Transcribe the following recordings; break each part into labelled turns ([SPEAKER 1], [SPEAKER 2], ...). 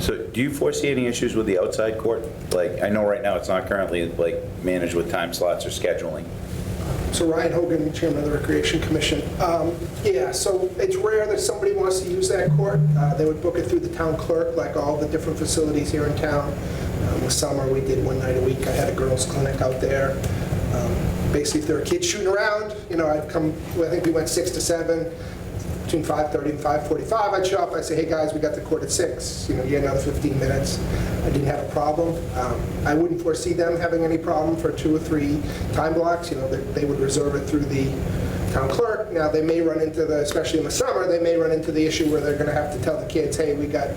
[SPEAKER 1] So do you foresee any issues with the outside court? Like, I know right now it's not currently like managed with time slots or scheduling.
[SPEAKER 2] So Ryan Hogan, Chairman of the Recreation Commission. Um, Yeah, so it's rare that somebody wants to use that court. Uh, They would book it through the town clerk, like all the different facilities here in town. Um, The summer, we did one night a week. I had a girls' clinic out there. Um, Basically, if there were kids shooting around, you know, I'd come, I think we went six to seven, between 5:30 and 5:45, I'd show up, I'd say, hey, guys, we got the court at six. you know, you had another 15 minutes. I didn't have a problem. Um, I wouldn't foresee them having any problem for two or three time blocks, you know, they they would reserve it through the town clerk. Now, they may run into the, especially in the summer, they may run into the issue where they're going to have to tell the kids, hey, we got,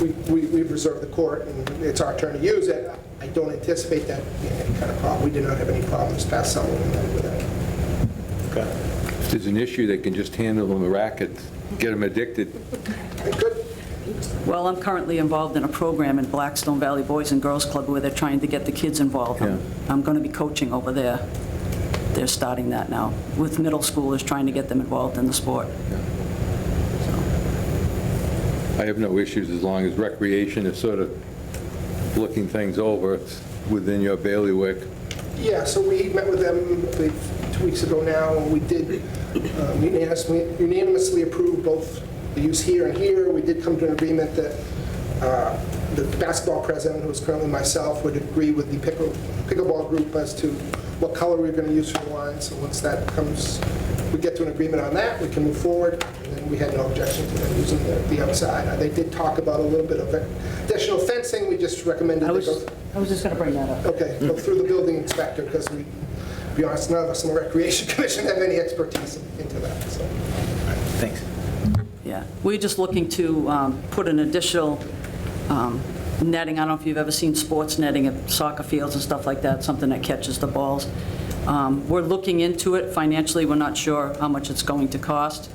[SPEAKER 2] we we we reserved the court, and it's our turn to use it. I don't anticipate that being any kind of problem. We did not have any problems past summer with that.
[SPEAKER 3] If there's an issue, they can just handle them a racket, get them addicted.
[SPEAKER 2] Good.
[SPEAKER 4] Well, I'm currently involved in a program in Blackstone Valley Boys and Girls Club where they're trying to get the kids involved.
[SPEAKER 3] Yeah.
[SPEAKER 4] I'm going to be coaching over there. They're starting that now with middle schoolers, trying to get them involved in the sport.
[SPEAKER 3] I have no issues as long as recreation is sort of looking things over, it's within your bailiwick.
[SPEAKER 2] Yeah, so we met with them I believe, two weeks ago now, and we did um, unanimously unanimously approve both the use here and here. We did come to an agreement that uh, the basketball president, who is currently myself, would agree with the pickle- pickleball group as to what color we're going to use for the line. So once that comes, we get to an agreement on that, we can move forward. And then we had no objection to them using the the outside. Uh, They did talk about a little bit of additional fencing, we just recommended
[SPEAKER 4] I
[SPEAKER 2] they
[SPEAKER 4] was,
[SPEAKER 2] go
[SPEAKER 4] I was just going to bring that up.
[SPEAKER 2] Okay, look through the building inspector, because we, to be honest, none of us in the Recreation Commission have any expertise into that, so.
[SPEAKER 1] Thanks.
[SPEAKER 4] Yeah, we're just looking to um, put an additional um, netting, I don't know if you've ever seen sports netting at soccer fields and stuff like that, something that catches the balls. Um, We're looking into it financially, we're not sure how much it's going to cost,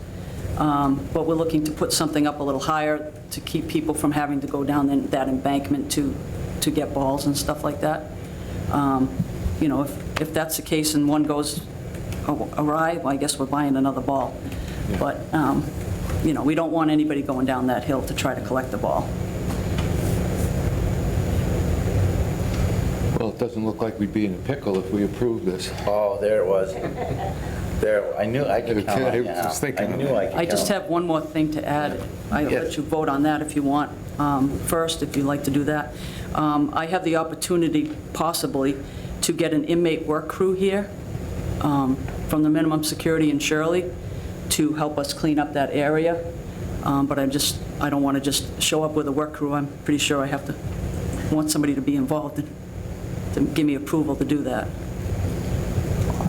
[SPEAKER 4] Um, but we're looking to put something up a little higher to keep people from having to go down in- that embankment to, to get balls and stuff like that. Um, You know, if, if that's the case and one goes awry, well, I guess we're buying another ball. But, um, you know, we don't want anybody going down that hill to try to collect the ball.
[SPEAKER 3] Well, it doesn't look like we'd be in a pickle if we approved this.
[SPEAKER 1] Oh, there it was. There, I knew I could count on you.
[SPEAKER 3] I was thinking
[SPEAKER 1] I knew I could
[SPEAKER 4] I just
[SPEAKER 1] count.
[SPEAKER 4] have one more thing to add. I'll let you vote on that if you want um, first, if you'd like to do that. Um, I have the opportunity possibly to get an inmate work crew here um, from the minimum security in Shirley to help us clean up that area. Um, But I just, I don't want to just show up with a work crew. I'm pretty sure I have to, want somebody to be involved and to give me approval to do that.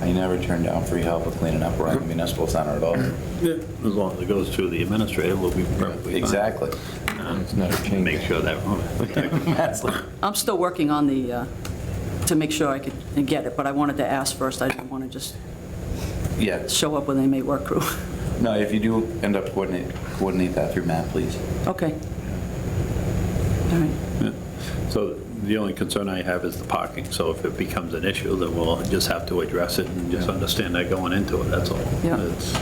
[SPEAKER 1] I never turned down free help with cleaning up around the municipal center at all.
[SPEAKER 5] As long as it goes through the administrator, we'll be perfectly fine.
[SPEAKER 1] Exactly.
[SPEAKER 3] It's not a change.
[SPEAKER 5] Make sure that,
[SPEAKER 4] I'm still working on the, uh, to make sure I could get it, but I wanted to ask first. I didn't want to just
[SPEAKER 1] Yeah,
[SPEAKER 4] show up with an inmate work crew.
[SPEAKER 1] no, if you do end up coordinate, coordinate that through Matt, please.
[SPEAKER 4] Okay. All right.
[SPEAKER 5] so the only concern I have is the parking. So if it becomes an issue, then we'll just have to address it and just understand that going into it, that's all.
[SPEAKER 4] Yeah.
[SPEAKER 5] It's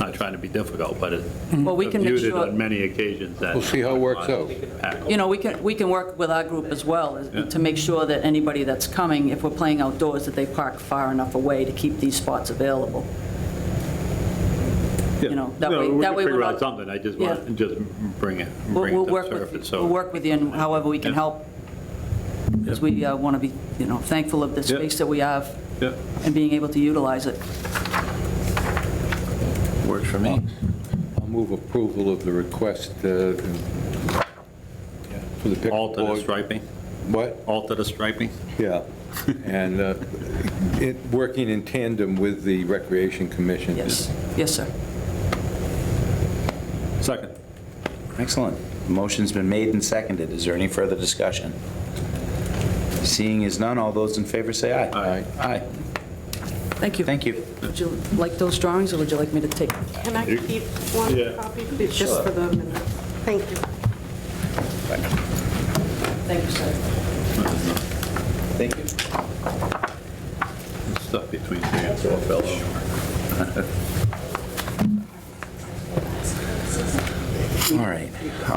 [SPEAKER 5] Not trying to be difficult, but it.
[SPEAKER 4] Well, we can make
[SPEAKER 5] I've viewed it
[SPEAKER 4] sure-
[SPEAKER 5] on many occasions that.
[SPEAKER 3] We'll see how it works out.
[SPEAKER 4] You know, we can, we can work with our group as well is- to make sure that anybody that's coming, if we're playing outdoors, that they park far enough away to keep these spots available. you know, that
[SPEAKER 5] No,
[SPEAKER 4] way-
[SPEAKER 5] we
[SPEAKER 4] that
[SPEAKER 5] can
[SPEAKER 4] way we're
[SPEAKER 5] figure out
[SPEAKER 4] not-
[SPEAKER 5] something. I just
[SPEAKER 4] Yeah.
[SPEAKER 5] want, just bring it,
[SPEAKER 4] We'll
[SPEAKER 5] bring
[SPEAKER 4] we'll
[SPEAKER 5] it to
[SPEAKER 4] work
[SPEAKER 5] the surface.
[SPEAKER 4] with,
[SPEAKER 5] so-
[SPEAKER 4] we'll work with you in however we can
[SPEAKER 5] Yeah.
[SPEAKER 4] help, because we want to be, you know, thankful of the
[SPEAKER 5] Yeah.
[SPEAKER 4] space that we have
[SPEAKER 5] Yeah,
[SPEAKER 4] and being able to utilize it.
[SPEAKER 1] Works for me.
[SPEAKER 3] I'll move approval of the request uh, for the pickleball.
[SPEAKER 5] alter the striping,
[SPEAKER 3] What?
[SPEAKER 5] alter the striping.
[SPEAKER 3] Yeah, and uh, it- working in tandem with the Recreation Commission.
[SPEAKER 4] Yes, yes, sir.
[SPEAKER 5] Second.
[SPEAKER 1] Excellent. Motion's been made and seconded. Is there any further discussion? Seeing is none, all those in favor say aye.
[SPEAKER 3] Aye.
[SPEAKER 1] Aye.
[SPEAKER 4] Thank you.
[SPEAKER 1] Thank you.
[SPEAKER 4] Would you like those drawings, or would you like me to take?
[SPEAKER 6] Can I keep one copy, please, just for the minute? Thank you.
[SPEAKER 4] Thank you, sir.
[SPEAKER 1] Thank you.
[SPEAKER 5] Stuff between three and four fellow.
[SPEAKER 1] All right.